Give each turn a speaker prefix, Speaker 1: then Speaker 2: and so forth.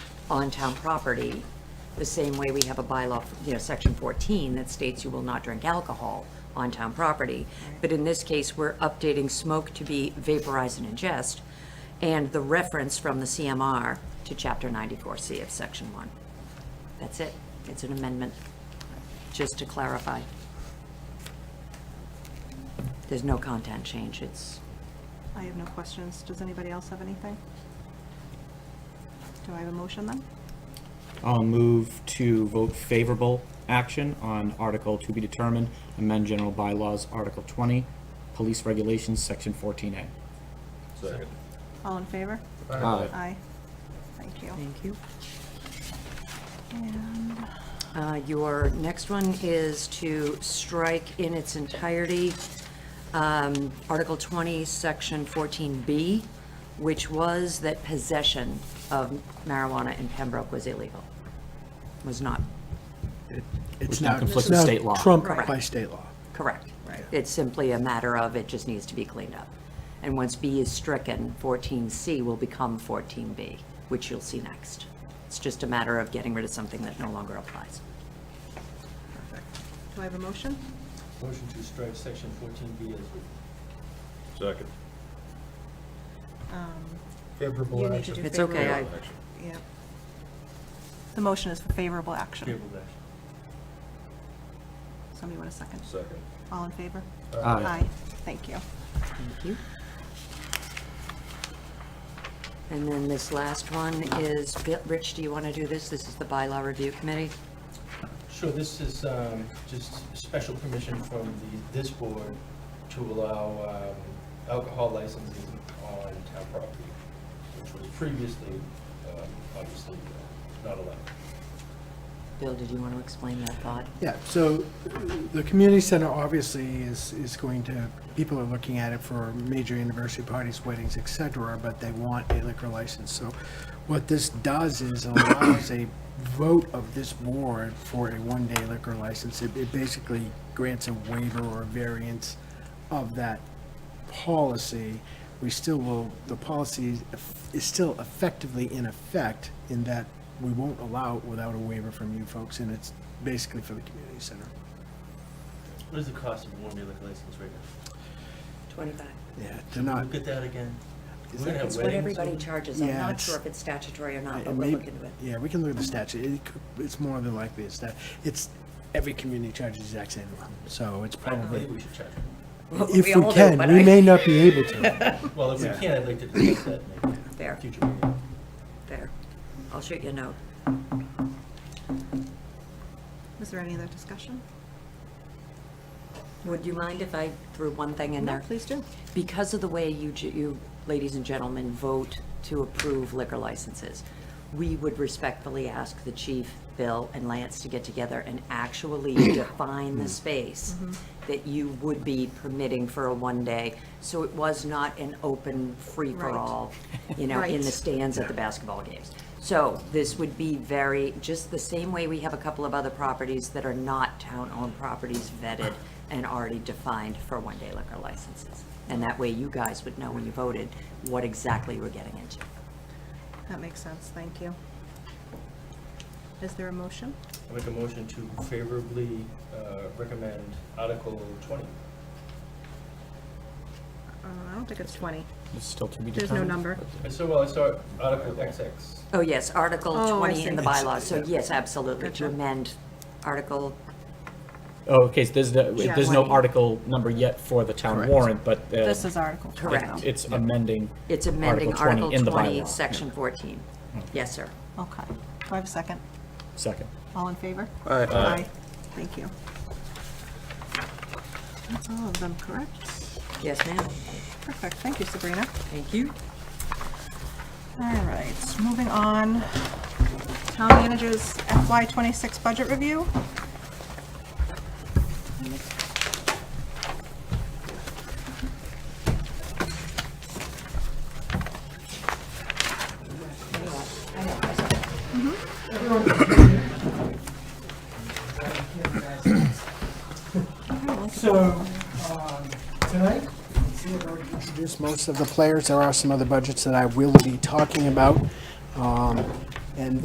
Speaker 1: on town property, the same way we have a bylaw, you know, section 14 that states you will not drink alcohol on town property. But in this case, we're updating smoke to be vaporize and ingest, and the reference from the CMR to chapter 94C of section 1. That's it. It's an amendment, just to clarify. There's no content change. It's,
Speaker 2: I have no questions. Does anybody else have anything? Do I have a motion then?
Speaker 3: I'll move to vote favorable action on Article to be determined, amend general bylaws, Article 20, police regulations, Section 14A.
Speaker 4: Second.
Speaker 2: All in favor?
Speaker 3: Aye.
Speaker 2: Aye. Thank you.
Speaker 1: thank you.
Speaker 2: And
Speaker 1: Uh, Your next one is to strike in its entirety um, Article 20, Section 14B, which was that possession of marijuana in Pembroke was illegal, was not
Speaker 3: Which
Speaker 5: It's
Speaker 3: now
Speaker 5: now
Speaker 3: conflicts
Speaker 5: it's
Speaker 3: with
Speaker 5: now
Speaker 3: state law.
Speaker 1: Correct.
Speaker 5: trumped by state law.
Speaker 1: correct. It's simply a matter of it just needs to be cleaned up. And once B is stricken, 14C will become 14B, which you'll see next. It's just a matter of getting rid of something that no longer applies.
Speaker 2: do I have a motion?
Speaker 6: Motion to strike section fourteen B as written.
Speaker 4: Second.
Speaker 2: Um, You
Speaker 6: Favorable
Speaker 2: need to do
Speaker 6: action.
Speaker 1: It's okay,
Speaker 2: favorable.
Speaker 1: I-
Speaker 4: Action.
Speaker 2: Yeah. The motion is for favorable action.
Speaker 6: Favorable action.
Speaker 2: Somebody want a second?
Speaker 4: Second.
Speaker 2: All in favor?
Speaker 3: Aye.
Speaker 2: Thank you.
Speaker 1: Thank you. And then this last one is, Rich, do you want to do this? This is the bylaw review committee.
Speaker 6: Sure, this is um, just special permission from the, this board to allow um, alcohol licenses on town property, which was previously, um, obviously, uh, not allowed.
Speaker 1: Bill, did you want to explain that thought?
Speaker 5: Yeah, so uh, the community center obviously is, is going to, people are looking at it for major anniversary parties, weddings, et cetera, but they want a liquor license. So what this does is allows a vote of this board for a one-day liquor license. It it basically grants a waiver or a variance of that policy, we still will, the policy is still effectively in effect in that we won't allow it without a waiver from you folks, and it's basically for the community center.
Speaker 6: What is the cost of one day liquor license right now?
Speaker 1: 25.
Speaker 5: Yeah, to not,
Speaker 6: Look at that again. We're
Speaker 5: Is
Speaker 6: gonna
Speaker 5: that-
Speaker 6: have
Speaker 1: Uh, It's what
Speaker 6: weddings
Speaker 1: everybody
Speaker 6: over-
Speaker 1: charges. I'm
Speaker 5: Yeah,
Speaker 1: not
Speaker 5: it's-
Speaker 1: sure if it's statutory or not,
Speaker 5: it
Speaker 1: but we'll
Speaker 5: may-
Speaker 1: look into it.
Speaker 5: yeah, we can look at the statute, It could- it's more than likely it's that, it's, every community charges the exact same amount, so it's
Speaker 6: I
Speaker 5: probably,
Speaker 6: believe we should charge.
Speaker 5: if
Speaker 1: all
Speaker 5: we
Speaker 1: do,
Speaker 5: can,
Speaker 1: but
Speaker 5: we
Speaker 1: I-
Speaker 5: may not be able to.
Speaker 6: Well, if we
Speaker 5: Yeah.
Speaker 6: can, I'd like to discuss that in a
Speaker 1: Fair,
Speaker 6: future meeting.
Speaker 1: fair. I'll shoot you a note.
Speaker 2: Is there any other discussion?
Speaker 1: Would you mind if I threw one thing in
Speaker 2: No,
Speaker 1: there?
Speaker 2: please do.
Speaker 1: Because of the way you, ju- you, ladies and gentlemen, vote to approve liquor licenses, we would respectfully ask the chief, Bill, and Lance to get together and actually define the space that you would be permitting for a one-day, so it was not an open free-for-all, you know, in the
Speaker 2: Right.
Speaker 1: stands at the basketball games. So this would be very, just the same way we have a couple of other properties that are not town-owned properties vetted and already defined for one-day liquor licenses. And that way you guys would know when you voted what exactly you were getting into.
Speaker 2: That makes sense. Thank you. Is there a motion?
Speaker 6: I make a motion to favorably uh, recommend Article 20.
Speaker 2: Uh, I don't think it's 20.
Speaker 3: It's still to be determined.
Speaker 2: There's no number.
Speaker 6: I saw, well, I saw uh, Article XX.
Speaker 1: Oh, yes, Article
Speaker 2: Oh, I
Speaker 1: 20 in
Speaker 2: see.
Speaker 1: the bylaws, so yes, absolutely, to
Speaker 2: Gotcha.
Speaker 1: amend Article,
Speaker 3: Oh, okay, so there's, no-
Speaker 2: Yeah.
Speaker 3: there's no
Speaker 1: 20.
Speaker 3: article number yet for the town
Speaker 5: Correct.
Speaker 3: warrant, but. uh,
Speaker 2: This is Article 20.
Speaker 1: Correct.
Speaker 3: it- It's amending.
Speaker 1: it's amending
Speaker 3: Article
Speaker 1: Article
Speaker 3: 20 in the
Speaker 1: 20,
Speaker 3: bylaw. Hmm.
Speaker 1: Section 14. Yes, sir.
Speaker 2: Okay. Do I have a second?
Speaker 3: Second.
Speaker 2: All in favor?
Speaker 4: Aye.
Speaker 2: Aye. Thank you. That's all of them, correct?
Speaker 1: Yes, ma'am.
Speaker 2: Perfect. Thank you, Sabrina.
Speaker 1: Thank you.
Speaker 2: All right, moving on. Town managers FY twenty-six budget review.
Speaker 5: So, um, tonight, see, I've already introduced most of the players, there are some other budgets that I will be talking about. Um, And